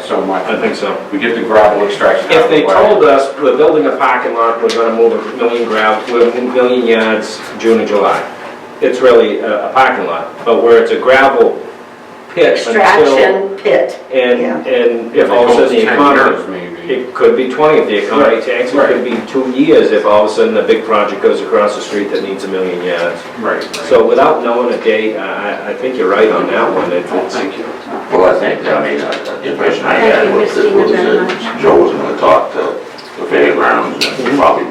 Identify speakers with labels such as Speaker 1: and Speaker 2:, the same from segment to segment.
Speaker 1: so much.
Speaker 2: I think so.
Speaker 1: We get the gravel extraction out
Speaker 3: If
Speaker 1: of the
Speaker 3: they
Speaker 1: way.
Speaker 3: told us we're building a parking lot, we're gonna move a million gravel, we're moving million yards June and July, it's really a a parking lot, but where it's a gravel pit until...
Speaker 4: Extraction pit.
Speaker 3: And, and if all of a sudden the economy,
Speaker 1: Maybe.
Speaker 3: it could be 20 if the economy tanks, it could be two years if all of a sudden a big project goes across the street that needs a million yards.
Speaker 1: Right.
Speaker 3: So without knowing a date, I, I- I think you're right on that one, It- it's,
Speaker 1: Thank you.
Speaker 5: Well, I think, I mean, uh, the impression I
Speaker 4: Thank
Speaker 5: had
Speaker 4: you,
Speaker 5: was that,
Speaker 4: Christina,
Speaker 5: was
Speaker 4: very
Speaker 5: that Joe was gonna talk to the fairgrounds
Speaker 3: Mm-hmm.
Speaker 5: and probably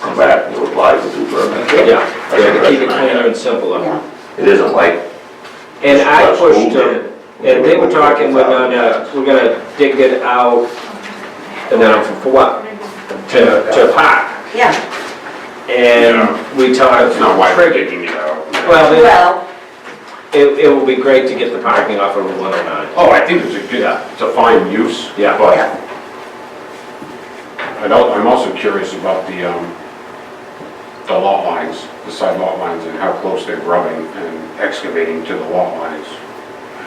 Speaker 5: come back and apply for two permits.
Speaker 3: yeah, to keep it cleaner and simpler.
Speaker 4: Yeah.
Speaker 5: It isn't like
Speaker 3: And I
Speaker 5: That's cool,
Speaker 3: pushed
Speaker 5: man.
Speaker 3: them, and they were talking, uh, we're gonna, we're gonna dig it out, and then I'm, for what? To, to park,
Speaker 4: Yeah,
Speaker 3: and we talked.
Speaker 1: That's not why we're
Speaker 3: Cricket.
Speaker 1: digging it out.
Speaker 3: Well, then,
Speaker 4: well,
Speaker 3: it, it will be great to get the parking off of Route 109.
Speaker 1: Oh, I think it's a good, it's a fine use.
Speaker 3: Yeah.
Speaker 1: But
Speaker 4: yeah,
Speaker 1: I don't, I'm also curious about the, um, the lot lines, the side lot lines and how close they're grubbing and excavating to the lot lines.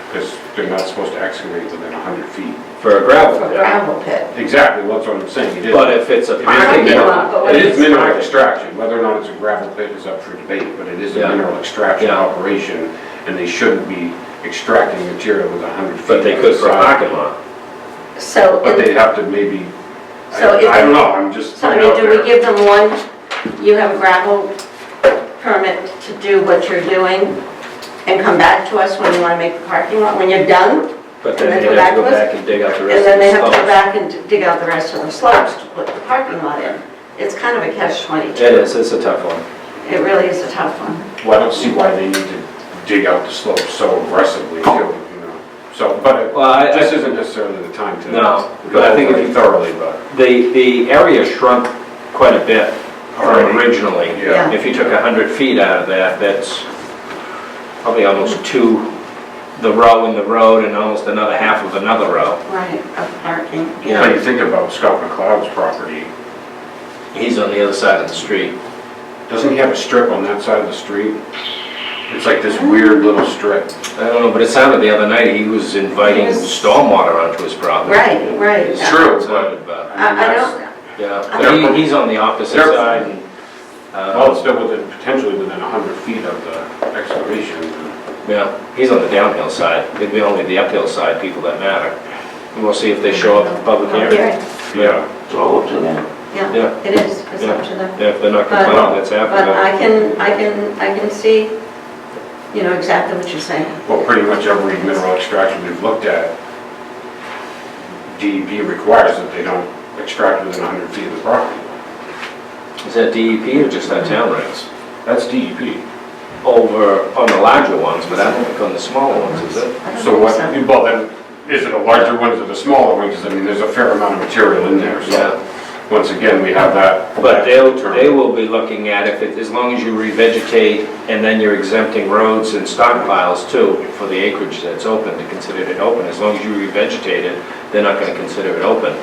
Speaker 1: Because they're not supposed to excavate within hundred feet.
Speaker 3: For a gravel
Speaker 4: for
Speaker 3: pit.
Speaker 4: gravel pit.
Speaker 1: Exactly, that's what I'm saying. It is-
Speaker 3: But if it's a
Speaker 1: It is
Speaker 3: parking
Speaker 1: minimal-
Speaker 3: lot,
Speaker 4: but
Speaker 1: It
Speaker 4: when
Speaker 1: is
Speaker 4: it's
Speaker 1: mineral
Speaker 3: private.
Speaker 1: extraction, whether or not it's a gravel pit is up for debate, but it is a
Speaker 3: Yeah.
Speaker 1: mineral extraction
Speaker 3: Yeah.
Speaker 1: operation, and they shouldn't be extracting material with 100 feet.
Speaker 3: but they
Speaker 1: on
Speaker 3: could
Speaker 1: the
Speaker 3: for a
Speaker 1: side.
Speaker 3: parking lot.
Speaker 4: So,
Speaker 1: But
Speaker 4: in-
Speaker 1: they'd have to maybe, I
Speaker 4: So if
Speaker 1: I
Speaker 4: it-
Speaker 1: don't know, I'm just
Speaker 4: so
Speaker 1: throwing it
Speaker 4: I mean,
Speaker 1: out
Speaker 4: do we
Speaker 1: there.
Speaker 4: give them one, you have a gravel permit to do what you're doing and come back to us when you wanna make the parking lot, when you're done?
Speaker 3: But
Speaker 4: And
Speaker 3: then
Speaker 4: then
Speaker 3: they
Speaker 4: go
Speaker 3: have to go
Speaker 4: backwards?
Speaker 3: back and dig out the
Speaker 4: And
Speaker 3: rest of
Speaker 4: then
Speaker 3: the
Speaker 4: they have to go
Speaker 3: stuff.
Speaker 4: back and dig out the rest of the slopes to put the parking lot in. It's kind of a catch twenty-two.
Speaker 3: It is, Oh, it's a tough one.
Speaker 4: It really is a tough one.
Speaker 1: Well, I don't see why they need to dig out the slope so aggressively, too, you know, so, but it-
Speaker 3: Well, I, I-
Speaker 1: this isn't necessarily the time to.
Speaker 3: No, but I think if you-
Speaker 1: go Thoroughly, but.
Speaker 3: the, the area shrunk quite a bit from
Speaker 1: Already.
Speaker 3: originally.
Speaker 1: Yeah.
Speaker 3: If you took 100 feet out of that, that's probably almost two, the row in the road and almost another half of another row.
Speaker 4: Right, of parking.
Speaker 3: Yeah.
Speaker 1: When you think about Scott McLeod's property,
Speaker 3: He's on the other side of the street.
Speaker 1: Doesn't he have a strip on that side of the street? It's like this weird little strip.
Speaker 3: I don't know, but it sounded the other night, he was inviting
Speaker 4: Yes.
Speaker 3: stormwater onto his property.
Speaker 4: Right, right.
Speaker 3: It's
Speaker 1: True,
Speaker 3: It sounded about.
Speaker 4: I, I don't,
Speaker 3: Yeah, but he, he's on the opposite
Speaker 1: They're-
Speaker 3: side and,
Speaker 1: Well, it's
Speaker 3: uh,
Speaker 1: still within, potentially within a hundred feet of the excavation.
Speaker 3: yeah, he's on the downhill side. It'd be only the uphill side people that matter. And we'll see if they show up at the public hearing.
Speaker 4: yeah,
Speaker 1: Yeah.
Speaker 5: it's all up to them.
Speaker 3: Yeah.
Speaker 4: yeah, it is, it's up to them.
Speaker 3: Yeah, If they're not complaining, that's
Speaker 4: But
Speaker 3: happening.
Speaker 4: I can, I can, I can see, you know, exactly what you're saying.
Speaker 1: Well, pretty much every mineral extraction we've looked at, DEP requires that they don't extract within a hundred feet of the property.
Speaker 3: Is that DEP or just that town regs?
Speaker 1: That's E DEP.
Speaker 3: Over on the larger ones, but I don't think on the smaller ones, is it?
Speaker 4: I don't
Speaker 1: So what,
Speaker 4: think
Speaker 1: well then, is it the larger ones or the smaller ones? 'Cause I mean, there's a fair amount of material in there, so. Once again, we have that.
Speaker 3: But they'll,
Speaker 1: term.
Speaker 3: they will be looking at if, it- as long as you revegetate and then you're exempting roads and stockpiles too for the acreage that's open, to consider it open. As long as you revegetate it, they're not gonna consider it open.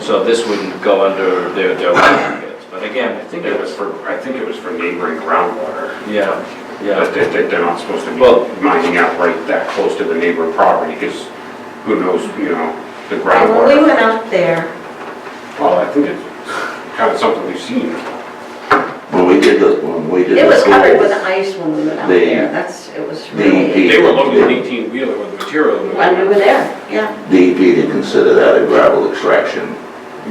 Speaker 3: So this wouldn't go under their, their buckets. But again,
Speaker 1: I think it was for, I think it was for neighboring groundwater.
Speaker 3: Yeah,
Speaker 1: But
Speaker 3: yeah.
Speaker 1: they, they- they're not supposed to be
Speaker 3: Well-
Speaker 1: mining out right that close to the neighboring property, because who knows, you know, the
Speaker 4: so. And When we
Speaker 1: groundwater.
Speaker 4: went up there,
Speaker 1: Well, I think it's kind of something we've seen.
Speaker 5: When we did the, when we did the.
Speaker 4: it was covered with
Speaker 5: schools,
Speaker 4: ice when we went up
Speaker 5: The-
Speaker 4: there, that's, it was
Speaker 5: the-
Speaker 4: really,
Speaker 1: They were loading an eighteen wheeler with material. in the-
Speaker 4: when we were there, yeah.
Speaker 5: DEP E didn't consider that a gravel extraction.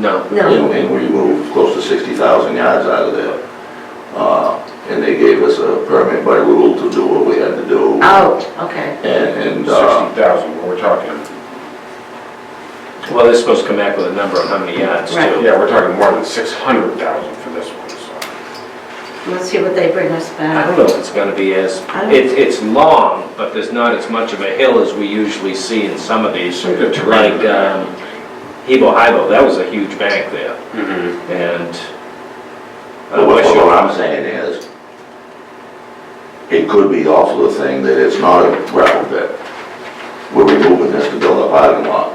Speaker 3: No,
Speaker 4: No,
Speaker 5: And and we moved close to 60,000 yards out of there. Uh, And they gave us a permit by rule to do what we had to do.
Speaker 4: oh, okay,
Speaker 5: And, and, uh,
Speaker 1: Sixty thousand, what we're talking.
Speaker 3: well, they're supposed to come back with a number on how many yards
Speaker 4: Right.
Speaker 3: too.
Speaker 1: Yeah, we're talking more than six hundred thousand for this one, so.
Speaker 4: let's see what they bring us
Speaker 3: I
Speaker 4: back.
Speaker 3: don't know if it's gonna be as,
Speaker 4: I don't-
Speaker 3: it's, it's long, but there's not as much of a hill as we usually see in some of these.
Speaker 1: Some good terrain.
Speaker 3: Like, um, Hebo Hibo, that was a huge bank there,
Speaker 1: Mhm.
Speaker 3: and. uh,
Speaker 5: but what
Speaker 3: West
Speaker 5: what
Speaker 3: Shore-
Speaker 5: I'm saying is, it could be also the thing that it's not a gravel pit. We're removing this to build a parking lot.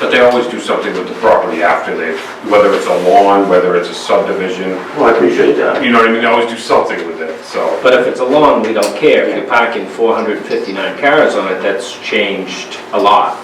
Speaker 1: But they always do something with the property after they, whether it's a lawn, whether it's a subdivision,
Speaker 5: Well, I appreciate that.
Speaker 1: you know what I mean, they always do something with it, so.
Speaker 3: But if it's a lawn, we don't care. If you're parking four hundred and fifty-nine cars on it, that's changed a lot.